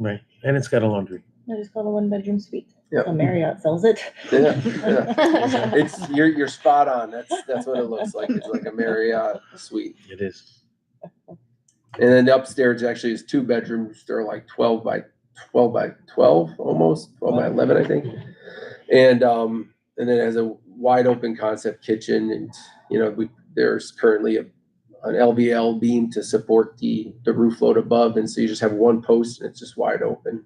Right, and it's got a laundry. I just called a one bedroom suite. Yep. A Marriott sells it. Yeah, yeah. It's, you're, you're spot on. That's, that's what it looks like. It's like a Marriott suite. It is. And then upstairs actually is two bedrooms. They're like twelve by twelve by twelve almost, twelve by eleven, I think. And um, and then it has a wide open concept kitchen and, you know, we, there's currently a an LVL beam to support the the roof load above, and so you just have one post and it's just wide open.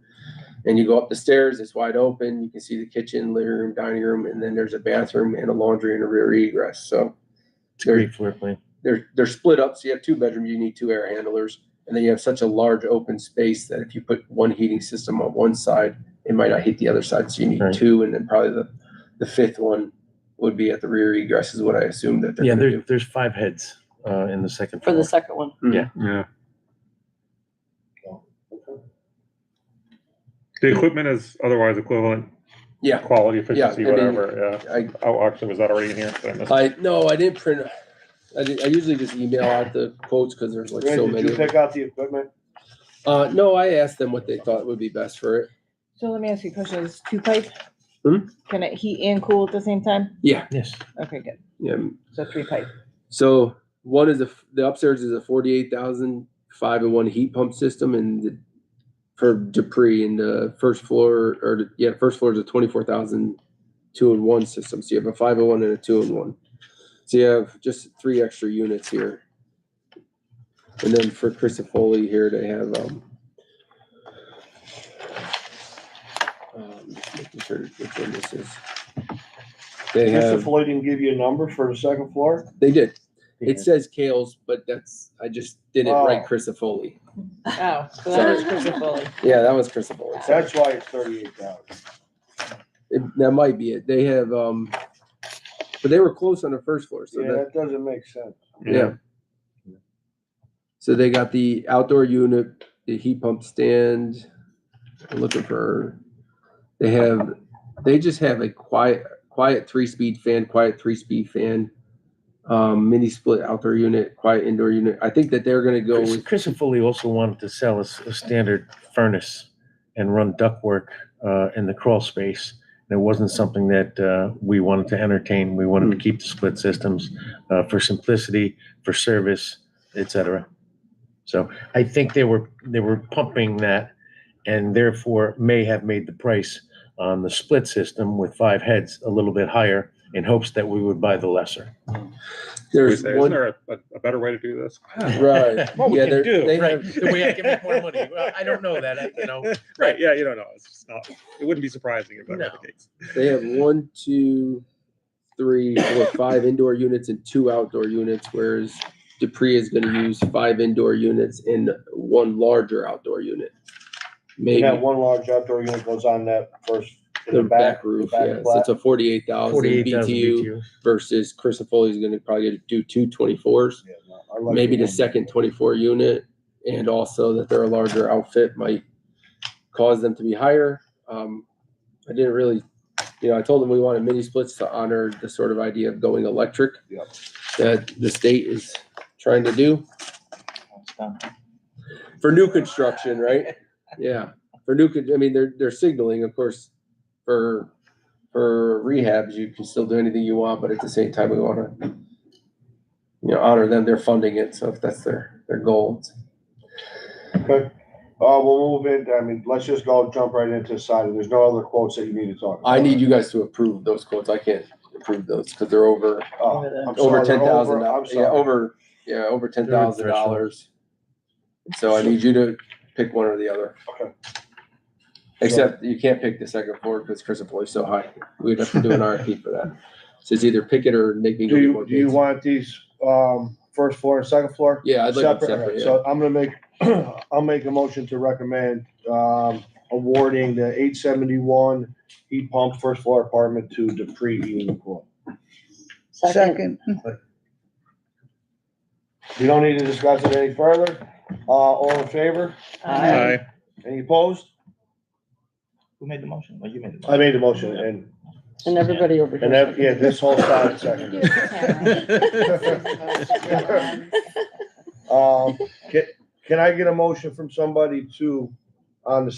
And you go up the stairs, it's wide open. You can see the kitchen, living room, dining room, and then there's a bathroom and a laundry and a rear egress. So It's a great floor plan. they're they're split up. So you have two bedroom, you need two air handlers, and then you have such a large open space that if you put one heating system on one side, it might not heat the other side. So you need Right. two, and then probably the the fifth one would be at the rear egress is what I assume that they're Yeah, gonna there, do. there's five heads, uh, in the second for floor. the second one. Yeah. The equipment is otherwise equivalent, Yeah, quality, efficiency, I mean- whatever, yeah. I Uh, Oh, actually, was that already in here? Did I miss it? Hmm. I no, I didn't print. I, did, I usually just email out the quotes because there's like Ray, so did many. you of them. pick out the equipment? Uh, no, I asked them what they thought would be best for it. So let me ask you a question. Is two pipe? Hmm? Can it heat and cool at the same time? Yeah, Yes, Okay, good. yeah. So three pipe. So one is a the upstairs is a forty eight thousand five and one heat pump system and the, for Dupree and the first floor or the, yeah first floor is a twenty four thousand two and one system. So you have a five and one and a two and one. So you have just three extra units here. And then for Chris and Foley here, they have um. um, Making sure which one this is. They Mr. have, Floyd didn't give you a number for the second floor? they did. Yeah. It says Kales, but that's, I just did it right, Oh. Crisafoli. Oh, so that is Crisafulli. Yeah, that was Crisafoli. That's why it's thirty-eight thousand. It- That might be it. They have, um, but they were close on the first floor, so Yeah, that, that doesn't make sense. yeah. So they got the outdoor unit, the heat pump stand, I'm looking for, they have, they just have a quiet, quiet three-speed fan, quiet three-speed fan, um, mini split outdoor unit, quiet indoor unit. I think that they're gonna go Chris, with, Chris and Foley also wanted to sell us a standard furnace and run ductwork, uh, in the crawl space. And it wasn't something that, uh, we wanted to entertain. We wanted to keep the split systems, uh, for simplicity, for service, et cetera. So I think they were, they were pumping that and therefore may have made the price on the split system with five heads a little bit higher in hopes that we would buy the lesser. Wait, there's Isn't one, there a, a better way to do this? right. What we Yeah, can they're- do, they Right, have- the way I can make more money. Well, I don't know that, I- you know. Right, yeah, you don't know. It's just not, it wouldn't be surprising if that were No. the case. They have one, two, three, four, five indoor units and two outdoor units, whereas Dupree is gonna use five indoor units and one larger outdoor unit. And Maybe that one large outdoor unit goes on that first, in the the back. back roof, back yeah, so flat. it's a forty-eight thousand 48,000 BTU BTU. versus Chris is gonna probably do two 24s, Yeah, no, I like maybe the one. second twenty-four unit. And also that they're a larger outfit might cause them to be higher. Um, I didn't really, you know, I told them we wanted mini splits to honor the sort of idea of going electric. Yep. That the state is trying to do for new construction, right? Yeah, for new, con- I mean, they're, they're signaling, of course, for, for rehabs, you can still do anything you want, but at the same time, we wanna, you know, honor them, they're funding it, so if that's their, their goal. Okay. Uh, we'll move in, I mean, let's just go jump right into side. There's no other quotes that you need to talk about. I need you guys to approve those quotes, I can't approve those, cause they're over, Oh, I'm over sorry, ten thousand, over- I'm dollars. yeah, sorry. over, yeah, over ten thousand dollars. So I need you to pick one or the other. Okay. Except you can't pick the second floor because Chris and Floyd's so high. We'd have to do an RFP for that. So it's either pick it or make me go Do get you, more do you bids. want these, um, first floor and second floor? Yeah, I'd like them Separate, separate, alright, yeah. so I'm gonna make, I'll make a motion to recommend, um, awarding the eight seventy-one heat pump first floor apartment to Dupree Heating and Cooling. Second. We don't need to discuss it any further, uh, all in favor, Uh, Aye. any opposed? Who made the motion? Well, you made the I motion. made the motion, and, And everybody over and here. that, yeah, this whole side second. Um, can, can I get a motion from somebody to, on the